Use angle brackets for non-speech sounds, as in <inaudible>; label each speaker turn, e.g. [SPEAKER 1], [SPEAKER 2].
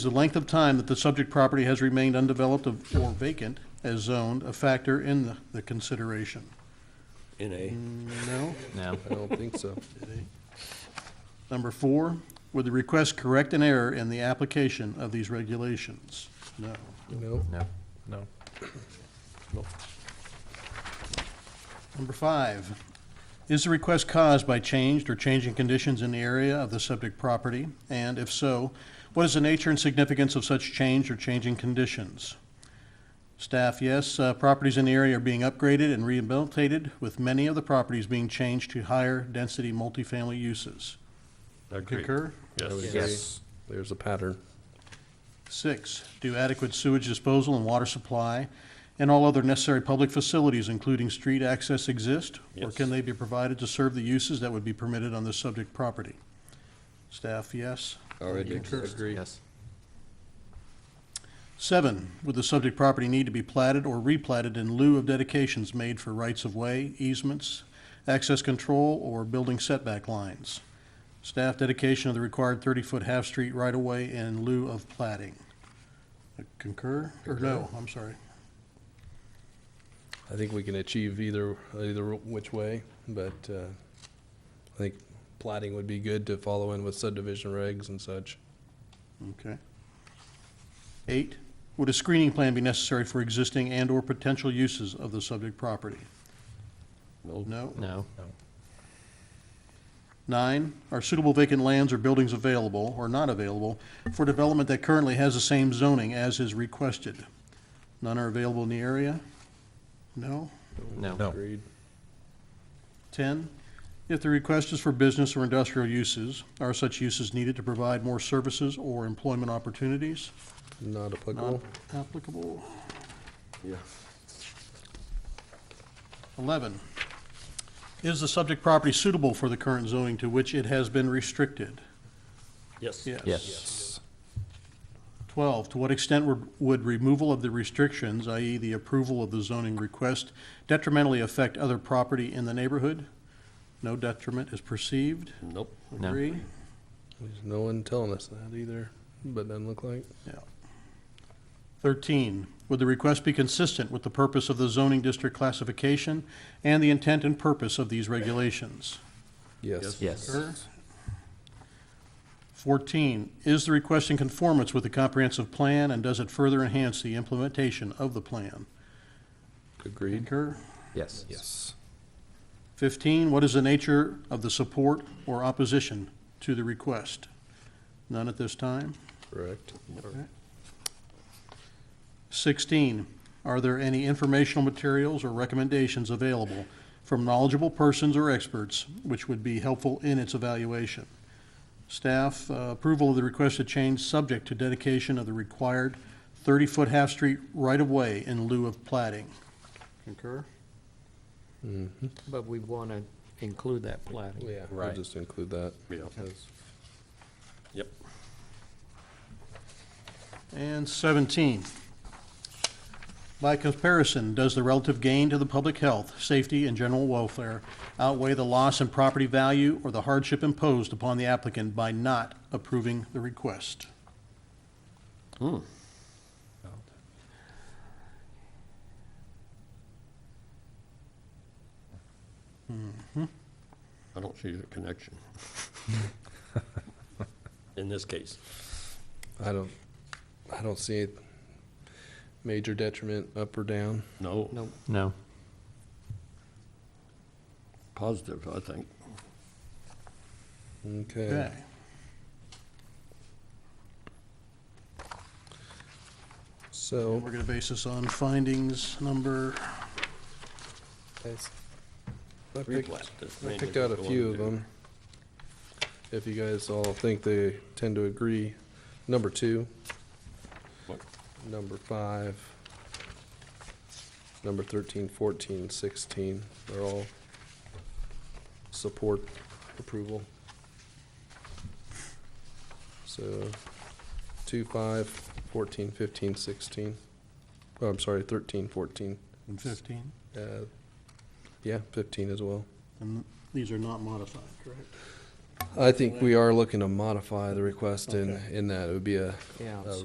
[SPEAKER 1] Is the length of time that the subject property has remained undeveloped of- or vacant as zoned a factor in the- the consideration?
[SPEAKER 2] in a,
[SPEAKER 1] No?
[SPEAKER 3] No.
[SPEAKER 4] I don't think so.
[SPEAKER 1] Number four, would the request correct an error in the application of these regulations? No.
[SPEAKER 4] No.
[SPEAKER 3] No.
[SPEAKER 4] No.
[SPEAKER 1] Number five, is the request caused by changed or changing conditions in the area of the subject property? And if so, what is the nature and significance of such change or changing conditions? Staff, yes, uh, properties in the area are being upgraded and rehabilitated, with many of the properties being changed to higher-density multifamily uses. Concur?
[SPEAKER 4] I would agree.
[SPEAKER 3] Yes.
[SPEAKER 4] There's a pattern.
[SPEAKER 1] Six, do adequate sewage disposal and water supply and all other necessary public facilities, including street access, exist? Or
[SPEAKER 2] Yes.
[SPEAKER 1] can they be provided to serve the uses that would be permitted on the subject property? Staff, yes.
[SPEAKER 2] already
[SPEAKER 1] Concur.
[SPEAKER 2] exists.
[SPEAKER 3] Yes.
[SPEAKER 1] Seven, would the subject property need to be platted or replatted in lieu of dedications made for rights-of-way, easements, access control, or building setback lines? Staff dedication of the required 30-foot half-street right-of-way in lieu of platting. Uh, Concur, or no, I'm sorry.
[SPEAKER 4] I think we can achieve either, either which way, but uh, I think plating would be good to follow in with subdivision regs and such.
[SPEAKER 1] Okay. Eight, would a screening plan be necessary for existing and/or potential uses of the subject property?
[SPEAKER 2] No.
[SPEAKER 1] No.
[SPEAKER 3] No.
[SPEAKER 1] Nine, are suitable vacant lands or buildings available or not available for development that currently has the same zoning as is requested? None are available in the area? No.
[SPEAKER 3] No.
[SPEAKER 4] Agreed.
[SPEAKER 1] 10, if the request is for business or industrial uses, are such uses needed to provide more services or employment opportunities?
[SPEAKER 4] Not
[SPEAKER 1] Not
[SPEAKER 4] applicable.
[SPEAKER 1] applicable.
[SPEAKER 2] Yeah.
[SPEAKER 1] 11, is the subject property suitable for the current zoning to which it has been restricted?
[SPEAKER 2] Yes.
[SPEAKER 1] Yes.
[SPEAKER 3] Yes.
[SPEAKER 1] 12, to what extent would- would removal of the restrictions, i.e. the approval of the zoning request, detrimentally affect other property in the neighborhood? No detriment is perceived.
[SPEAKER 2] Nope.
[SPEAKER 3] No.
[SPEAKER 1] Agree?
[SPEAKER 4] There's no one telling us that either, but doesn't look like.
[SPEAKER 1] Yeah. 13, would the request be consistent with the purpose of the zoning district classification and the intent and purpose of these regulations?
[SPEAKER 4] Yes.
[SPEAKER 3] Yes.
[SPEAKER 1] Sure. 14, is the request in conformance with the comprehensive plan, and does it further enhance the implementation of the plan?
[SPEAKER 4] Agreed.
[SPEAKER 1] Concur.
[SPEAKER 3] Yes.
[SPEAKER 4] Yes.
[SPEAKER 1] 15, what is the nature of the support or opposition to the request? None at this time.
[SPEAKER 4] Correct.
[SPEAKER 1] 16, are there any informational materials or recommendations available from knowledgeable persons or experts which would be helpful in its evaluation? Staff, uh, approval of the requested change subject to dedication of the required 30-foot half-street right-of-way in lieu of plating. Concur?
[SPEAKER 5] But we want to include that plating.
[SPEAKER 4] Yeah, we'll
[SPEAKER 3] Right.
[SPEAKER 4] just include that.
[SPEAKER 2] Yeah.
[SPEAKER 4] Yes.
[SPEAKER 2] Yep.
[SPEAKER 1] And 17. By comparison, does the relative gain to the public health, safety, and general welfare outweigh the loss in property value or the hardship imposed upon the applicant by not approving the request?
[SPEAKER 2] I don't see the
[SPEAKER 4] <laughs>
[SPEAKER 2] connection. In this case.
[SPEAKER 4] I don't, I don't see it. Major detriment up or down.
[SPEAKER 2] No.
[SPEAKER 5] No,
[SPEAKER 3] No.
[SPEAKER 2] Positive, I think.
[SPEAKER 4] Okay.
[SPEAKER 1] Okay.
[SPEAKER 4] So.
[SPEAKER 1] We're going to base this on findings number,
[SPEAKER 4] Yes. I
[SPEAKER 2] Three
[SPEAKER 4] picked,
[SPEAKER 2] plat. That's
[SPEAKER 4] I
[SPEAKER 2] mainly
[SPEAKER 4] picked out a
[SPEAKER 2] what we
[SPEAKER 4] few of
[SPEAKER 2] wanna do.
[SPEAKER 4] them. If you guys all think they tend to agree, number two,
[SPEAKER 2] What?
[SPEAKER 4] number five, number thirteen, fourteen, sixteen, they're all support approval. So, two, five, fourteen, fifteen, sixteen, oh, I'm sorry, thirteen, fourteen,
[SPEAKER 1] and 15,
[SPEAKER 4] uh, yeah, fifteen as well.
[SPEAKER 1] and these are not modified, correct?
[SPEAKER 4] I think we are looking to modify the request in, in that it would be a
[SPEAKER 5] yeah.
[SPEAKER 4] Uh,